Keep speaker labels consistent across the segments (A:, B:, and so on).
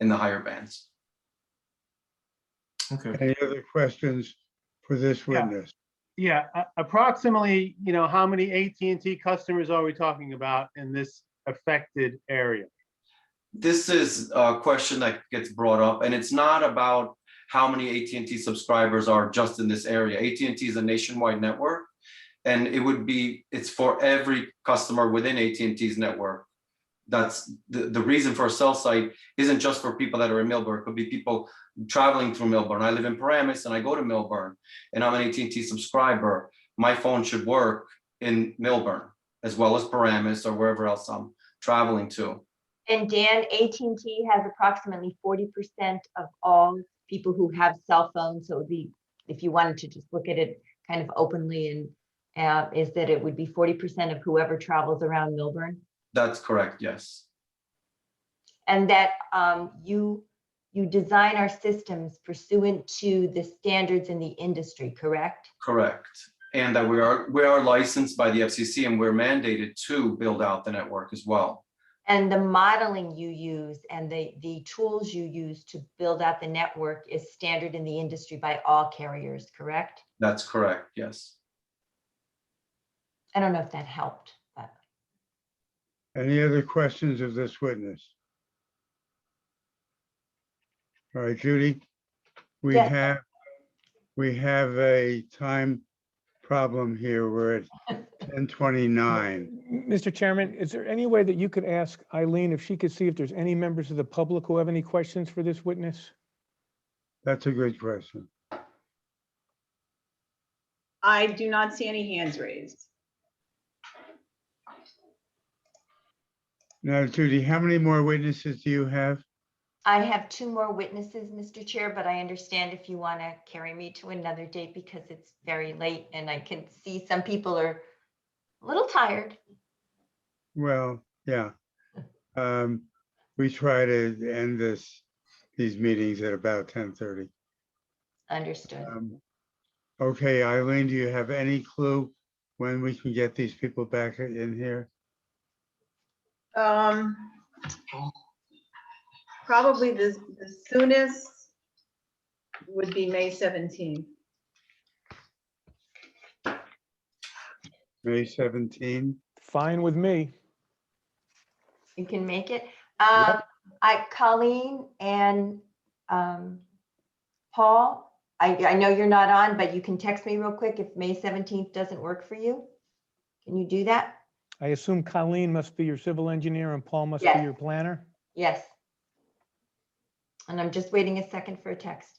A: in the higher bands.
B: Okay,
C: Any other questions for this
D: Yeah.
C: witness?
D: Yeah, a- approximately, you know, how many AT&T customers are we talking about in this affected area?
A: This is a question that gets brought up, and it's not about how many AT&T subscribers are just in this area. AT&T is a nationwide network, and it would be, it's for every customer within AT&T's network. That's, the, the reason for a cell site isn't just for people that are in Millburn. It could be people traveling through Millburn. I live in Paramus and I go to Millburn, and I'm an AT&T subscriber. My phone should work in Millburn as well as Paramus or wherever else I'm traveling to.
E: And Dan, AT&T has approximately forty percent of all people who have cell phones, so it would be, if you wanted to just look at it kind of openly and uh, is that it would be forty percent of whoever travels around Milburn.
A: That's correct, yes.
E: And that um, you, you design our systems pursuant to the standards in the industry, correct?
A: Correct. And that we are, we are licensed by the FCC and we're mandated to build out the network as well.
E: And the modeling you use and the, the tools you use to build out the network is standard in the industry by all carriers, correct?
A: That's correct, yes.
E: I don't know if that helped, but.
C: Any other questions of this witness? All right, Judy, we
E: Yes.
C: have, we have a time problem here. We're at ten twenty-nine.
F: Mr. Chairman, is there any way that you could ask Eileen if she could see if there's any members of the public who have any questions for this witness?
C: That's a good question.
G: I do not see any hands raised.
C: Now, Judy, how many more witnesses do you have?
E: I have two more witnesses, Mr. Chair, but I understand if you want to carry me to another date because it's very late and I can see some people are a little tired.
C: Well, yeah. Um, we try to end this, these meetings at about ten thirty.
E: Understood.
C: Um, Okay, Eileen, do you have any clue when we can get these people back in here?
G: Um, Probably the the soonest would be May 17.
C: May 17?
F: Fine with me.
E: You can make it. Um, I, Colleen and um, Paul, I, I know you're not on, but you can text me real quick if May 17th doesn't work for you. Can you do that?
F: I assume Colleen must be your civil engineer and Paul must be
E: Yes.
F: your planner?
E: Yes. And I'm just waiting a second for a text.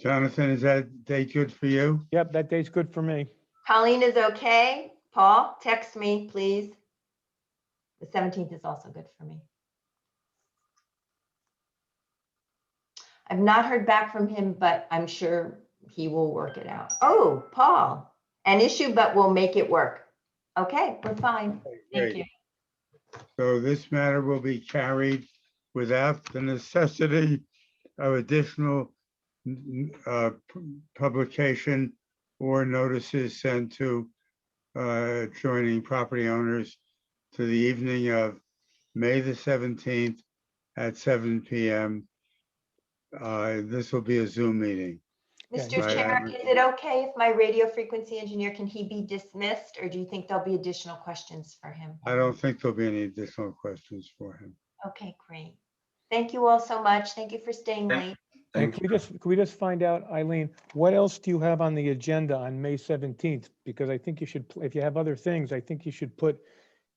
C: Jonathan, is that date good for you?
F: Yep, that date's good for me.
E: Colleen is okay. Paul, text me, please. The seventeenth is also good for me. I've not heard back from him, but I'm sure he will work it out. Oh, Paul, an issue, but we'll make it work. Okay, we're fine. Thank
C: Great.
E: you.
C: So this matter will be carried without the necessity of additional n- n- uh, pu- publication or notices sent to uh, adjoining property owners to the evening of May the 17th at seven PM. Uh, This will be a Zoom meeting.
F: Yeah,
E: Mr.
C: right,
E: Chair,
C: I'm-
E: is it okay if my radio frequency engineer, can he be dismissed? Or do you think there'll be additional questions for him?
C: I don't think there'll be any additional questions for him.
E: Okay, great. Thank you all so much. Thank you for staying
A: Thank-
E: late.
F: And
A: Thank
F: can
A: you.
F: we just, can we just find out, Eileen, what else do you have on the agenda on May 17th? Because I think you should, pl- if you have other things, I think you should put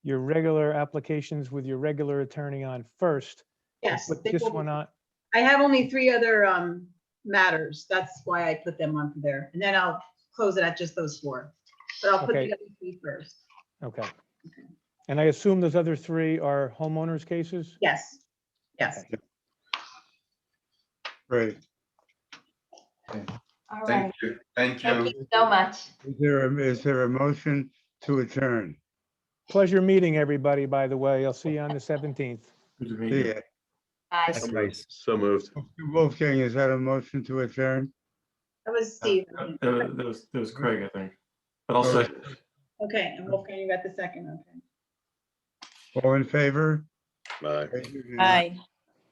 F: your regular applications with your regular attorney on first. and
G: Yes.
F: Put
G: they
F: this
G: will-
F: one uh, on,
G: I have only three other um, matters. That's why I put them on for there. And then I'll close it at just those four. But I'll put
F: Okay.
G: the other three first.
F: okay. And I assume those other three are homeowners cases?
G: Yes, yes.
C: Great.
E: All right.
A: Thank you. Thank you.
E: Thank you so much.
C: Is there a- is there a motion to adjourn?
F: Pleasure meeting everybody, by the way. I'll see you on the 17th.
B: good to meet
C: See
B: you.
C: ya.
E: Bye.
H: So moved.
C: Wolfgang, is that a motion to adjourn?
G: That was Steve.
B: Uh, That was, that was Craig, I think. But I'll
C: Oh.
B: say,
G: Okay, and Wolfgang, you got the second, okay.
C: All in favor?
H: Bye.
C: Raise your hand.
I: Aye.